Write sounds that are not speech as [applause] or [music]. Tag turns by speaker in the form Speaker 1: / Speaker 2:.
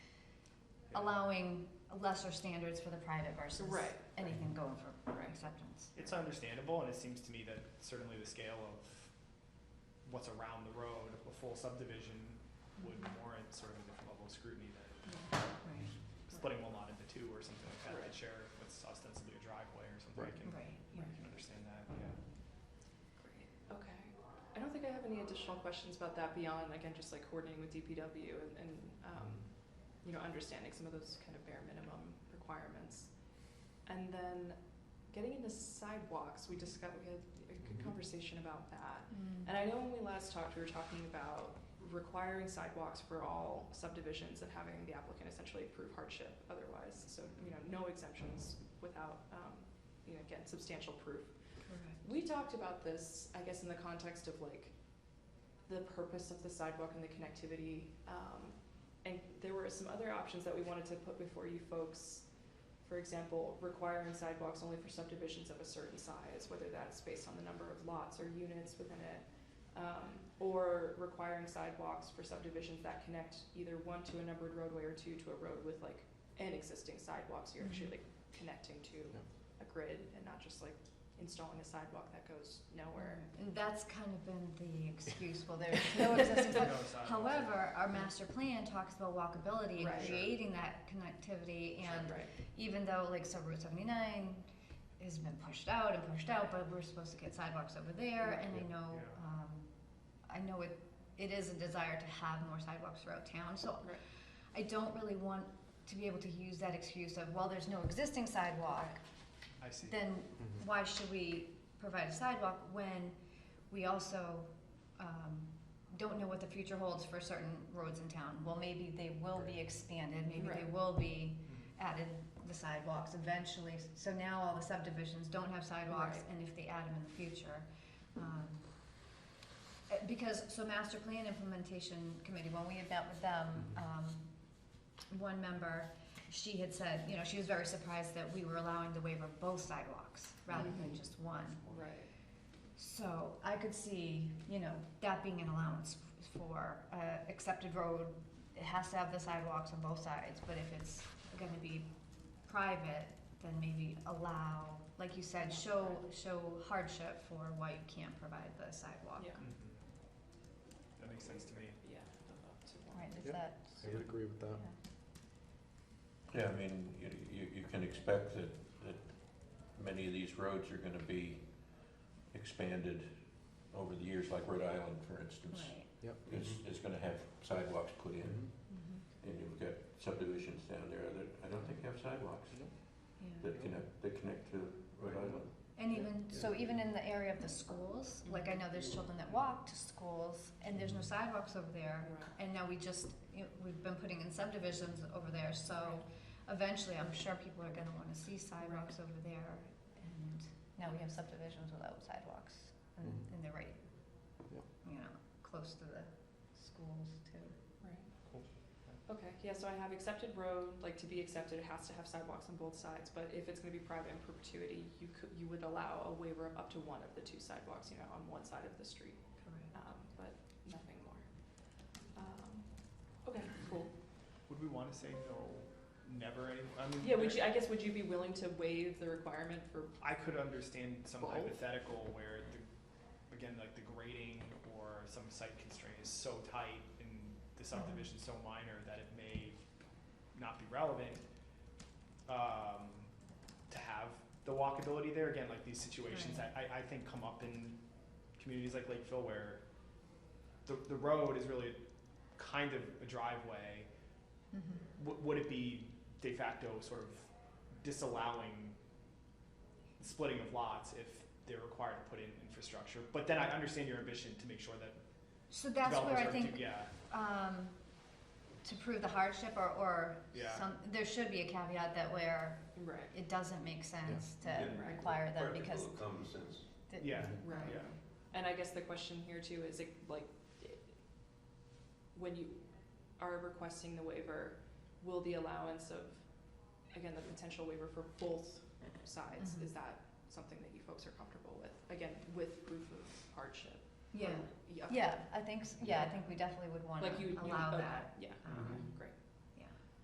Speaker 1: allowing lesser standards for the private versus
Speaker 2: Right.
Speaker 1: anything going for
Speaker 2: Right.
Speaker 1: acceptance.
Speaker 3: It's understandable, and it seems to me that certainly the scale of what's around the road, a full subdivision would
Speaker 1: Mm-hmm.
Speaker 3: warrant sort of a different level of scrutiny than
Speaker 1: Right,
Speaker 3: splitting one lot into two or something like that,
Speaker 2: Right.
Speaker 3: that share what's ostensibly a driveway or something. I
Speaker 4: Right.
Speaker 3: can,
Speaker 1: right,
Speaker 3: I can understand that, yeah.
Speaker 2: Great. Okay. I don't think I have any additional questions about that beyond, again, just like coordinating with DPW and, and, um, you know, understanding some of those kind of bare minimum requirements. And then getting into sidewalks, we discussed, we had a good
Speaker 4: Mhm.
Speaker 2: conversation about that.
Speaker 1: yeah.
Speaker 2: And I know when we last talked, we were talking about requiring sidewalks for all subdivisions and having the applicant essentially prove hardship otherwise. So, you know, no exemptions without, um, you know, again, substantial proof. We talked about this, I guess, in the context of like the purpose of the sidewalk and the connectivity. Um, and there were some other options that we wanted to put before you folks. For example, requiring sidewalks only for subdivisions of a certain size, whether that's based on the number of lots or units within it. Um, or requiring sidewalks for subdivisions that connect either one to a numbered roadway or two to a road with like an existing sidewalk, so you're actually
Speaker 1: Mhm.
Speaker 2: like connecting to
Speaker 4: Yeah.
Speaker 2: a grid and not just like installing a sidewalk that goes nowhere.
Speaker 1: And that's kind of been the excuse, well,
Speaker 2: [laughs]
Speaker 1: there's no existing, but
Speaker 3: No sidewalks.
Speaker 1: however, our master plan talks about walkability
Speaker 2: Right.
Speaker 1: and creating that connectivity and
Speaker 2: Right.
Speaker 1: even though like so Route seventy nine has been pushed out and pushed out, but we're supposed to get sidewalks over there and I
Speaker 4: Yeah.
Speaker 1: know,
Speaker 3: Yeah.
Speaker 1: um, I know it, it is a desire to have more sidewalks throughout town, so
Speaker 2: Right.
Speaker 1: I don't really want to be able to use that excuse of, well, there's no existing sidewalk,
Speaker 3: I see.
Speaker 1: then
Speaker 4: Mhm.
Speaker 1: why should we provide a sidewalk when we also, um, don't know what the future holds for certain roads in town? Well, maybe they will be
Speaker 4: Right.
Speaker 1: expanded, maybe they
Speaker 2: Right.
Speaker 1: will be
Speaker 3: Mhm.
Speaker 1: added the sidewalks eventually, so now all the subdivisions don't have sidewalks,
Speaker 2: Right.
Speaker 1: and if they add them in the future. um, uh, Because, so master plan implementation committee, when we had met with them,
Speaker 4: Mhm.
Speaker 1: um, one member, she had said, you know, she was very surprised that we were allowing the waiver of both sidewalks, rather than
Speaker 2: Mhm.
Speaker 1: just one.
Speaker 2: Right.
Speaker 1: So I could see, you know, that being an allowance f- for uh, accepted road, it has to have the sidewalks on both sides, but if it's gonna be private, then maybe allow, like you said, show, show hardship for why you can't provide the sidewalk.
Speaker 2: Yeah.
Speaker 3: Mhm. Mm-hmm. That makes sense to me.
Speaker 2: Yeah. up to one.
Speaker 1: Right, is
Speaker 4: Yep.
Speaker 1: that?
Speaker 4: I would agree with that.
Speaker 5: Yeah, I mean, you, you, you can expect that, that many of these roads are gonna be expanded over the years, like Rhode Island, for instance,
Speaker 1: Right.
Speaker 4: Yep.
Speaker 5: is, is gonna have sidewalks put in.
Speaker 4: Mhm.
Speaker 1: Mhm.
Speaker 5: And you've got subdivisions down there that I don't think have sidewalks
Speaker 1: Yeah.
Speaker 5: that connect, that connect to Rhode
Speaker 4: Right.
Speaker 5: Island.
Speaker 1: And
Speaker 4: Yeah.
Speaker 1: even, so even in the area of the schools, like I know there's children that walk to schools, and there's no sidewalks over there, And now we just, you know, we've been putting in subdivisions over there, so eventually I'm sure people are gonna wanna see sidewalks over there. And now we have subdivisions without sidewalks and,
Speaker 4: Mhm.
Speaker 1: and they're right,
Speaker 4: Yep.
Speaker 1: you know, close to the schools too.
Speaker 3: Cool.
Speaker 2: Okay, yeah, so I have accepted road, like to be accepted, it has to have sidewalks on both sides, but if it's gonna be private in perpetuity, you could, you would allow a waiver of up to one of the two sidewalks, you know, on one side of the street,
Speaker 1: Correct.
Speaker 2: um, but nothing more. Um, okay, cool.
Speaker 3: Would we wanna say no, never any, I mean.
Speaker 2: Yeah, would
Speaker 3: there-
Speaker 2: you, I guess, would you be willing to waive the requirement for,
Speaker 3: I could understand some
Speaker 2: Both?
Speaker 3: hypothetical where the, again, like the grading or some site constraint is so tight and the subdivision's so minor that it may not be relevant, um, to have the walkability there, again, like these situations that I, I think come up in communities like Lakeville where the, the road is really kind of a driveway,
Speaker 1: Mhm.
Speaker 3: W- would it be de facto sort of disallowing splitting of lots if they're required to put in infrastructure? But then I understand your ambition to make sure that
Speaker 1: So that's where
Speaker 3: developers
Speaker 1: I
Speaker 3: are
Speaker 1: think,
Speaker 3: do, yeah,
Speaker 1: um, to prove the hardship or, or
Speaker 3: Yeah.
Speaker 1: some, there should be a caveat that where
Speaker 2: right,
Speaker 1: it doesn't make sense to
Speaker 5: Yeah.
Speaker 1: require them because.
Speaker 5: Practical common sense.
Speaker 1: th-
Speaker 3: yeah,
Speaker 2: right.
Speaker 3: yeah.
Speaker 2: And I guess the question here too is like, like, when you are requesting the waiver, will the allowance of, again, the potential waiver for both sides,
Speaker 1: Mhm.
Speaker 2: is that something that you folks are comfortable with? Again, with proof of hardship?
Speaker 1: Yeah,
Speaker 2: Yeah.
Speaker 1: yeah, I think, s- yeah, I think we definitely would wanna
Speaker 2: Like you, uh, mhm. you,
Speaker 1: allow
Speaker 2: okay,
Speaker 1: that.
Speaker 2: yeah,
Speaker 1: Um,
Speaker 2: great,